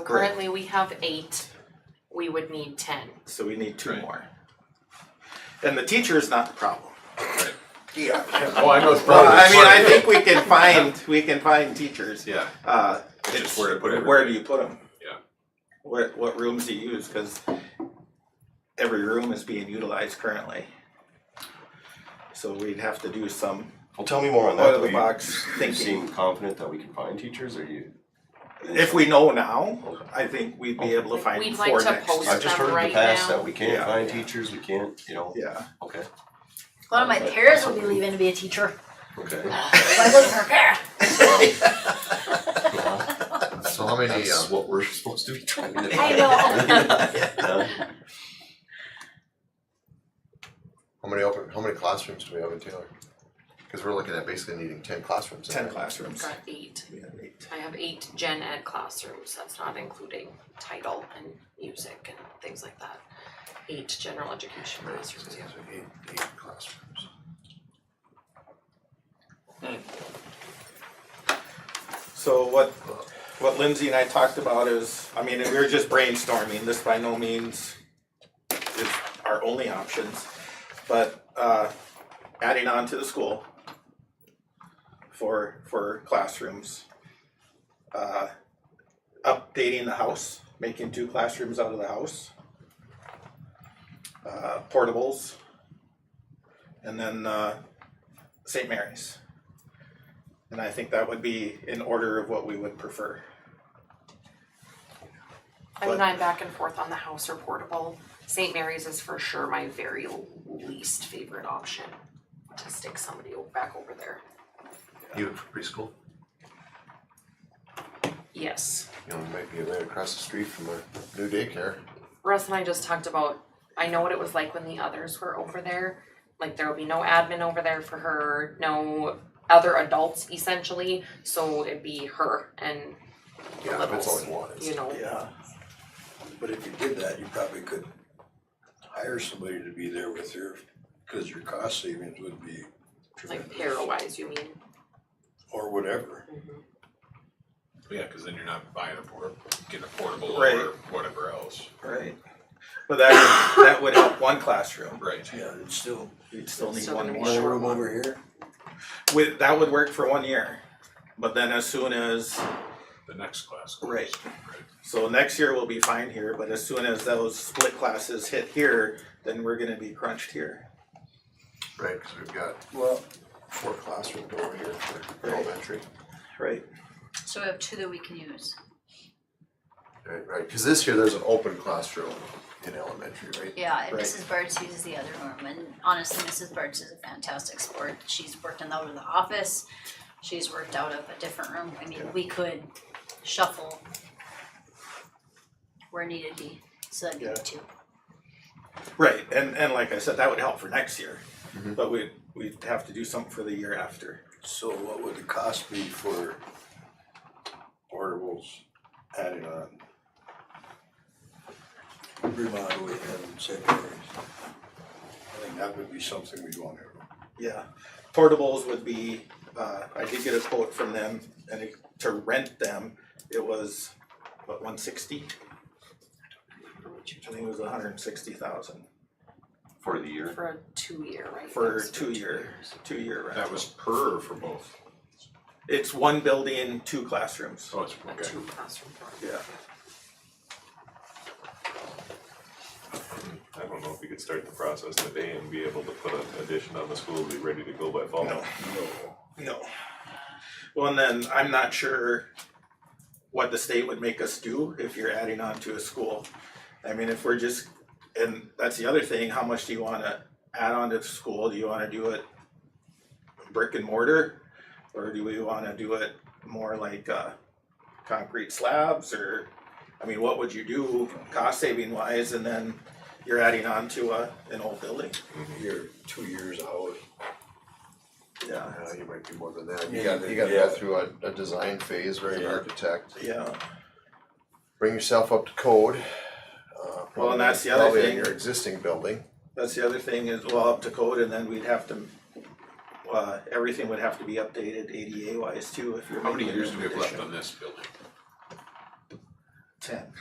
Great. currently we have eight, we would need ten. So we need two Right. more. And the teacher is not the problem. Right. Yeah. Oh, I know it's Well, probably. I mean, I think we can find, we can find teachers. Yeah, Uh, it's just where to put it. Where do you put them? Yeah. Where, what rooms do you use? Because every room is being utilized currently. So we'd have to do some Well, tell me more on out that. of though. the You- box You seem thinking. confident that we can find teachers, or you? If we know now, I think we'd be able to find Oh. We'd like four next to post year. I've just them heard in right the past now. that we can't Yeah. find teachers. We can't, you know. Yeah, Okay. One of my parents will be leaving to be a teacher. Okay. I wasn't prepared. So how many, That's um, what we're supposed to be trying to. I know. Yeah. how many open, how many classrooms do we have in Taylor? Cause we're looking at basically needing ten classrooms. in ten there. classrooms. Got eight. We have eight. I have eight gen ed classrooms, that's not including title and music and things like that. Eight general education Right, classrooms, so yeah. these are eight, eight classrooms. So what, what Lindsay and I talked about is, I mean, and we were just brainstorming, this by no means is our only options, but, uh, adding on to the school for, for classrooms. Uh, updating the house, making two classrooms out of the house. Uh, portables. And then, uh, St. Mary's. And I think that would be in order of what we would prefer. I mean, But- I'm back and forth on the house or portable. St. Mary's is for sure my very least favorite option to stick somebody o- back over there. Even for preschool, Yes. you know, we might be right across the street from a new daycare. Russ and I just talked about, I know what it was like when the others were over there. Like there will be no admin over there for her, no other adults essentially, so it'd be her and Yeah, that's all we want is you know, Yeah, but if you did that, you probably could hire somebody to be there with her, cause your cost savings would be like tremendous. para wise, you mean. Or whatever, Yeah, because then you're not buying a port, getting a portable Right. or whatever else. Right. But that would, that would help one classroom. Right. yeah, it's still, You'd still need Still one gonna be more. one Sure. room over here, With, that would work for one year. But then as soon as, The next class. goes. Right. so next year we'll be fine here, but as soon as those split classes hit here, then we're gonna be crunched here. right, cause we've got well, four classrooms over here for Right. elementary. Right. So we have two that we can use. Right, right, cause this year there's an open classroom in elementary, right? Yeah, and Right. Mrs. Bartz uses the other room, and honestly, Mrs. Bartz is a fantastic sport. She's worked in the, out of the office. She's worked out of a different room. I mean, we could shuffle where needed be, so that'd Yeah. be two. Right, and, and like I said, that would help for next year. But we, we'd have to do something for the year after. so what would the cost be for portables added on? Remodeling and secondaries. I think that would be something we'd wanna, Yeah, portables would be, uh, I did get a quote from them, and it- to rent them, it was, what, one sixty? I think it was hundred and sixty thousand For the year. for a two year, right? for Yes, two year, two year That rental. was per or for both? It's one building, two classrooms. Oh, it's A okay. two classroom dorm. Yeah, I don't know if we could start the process today and be able to put an addition on the school, be ready to go by fall. Oh, no, no. Well, and then I'm not sure what the state would make us do if you're adding on to a school. I mean, if we're just, and that's the other thing, how much do you wanna add on to the school? Do you wanna do it brick and mortar? Or do we wanna do it more like, uh, concrete slabs or, I mean, what would you do cost saving wise? And then you're adding on to a, an old building. Mm-hmm. you're two years out. Yeah, Uh, you might be more than that, you Yeah, gotta, you gotta yeah. go through a, a design phase, right, an Yeah. architect, yeah. bring yourself up to code. uh, Well, and that's the other probably in thing. Your existing building, That's the other thing is, well, up to code and then we'd have to, uh, everything would have to be updated ADA wise too, if you're How many making a years new do we have left addition. on this building? ten.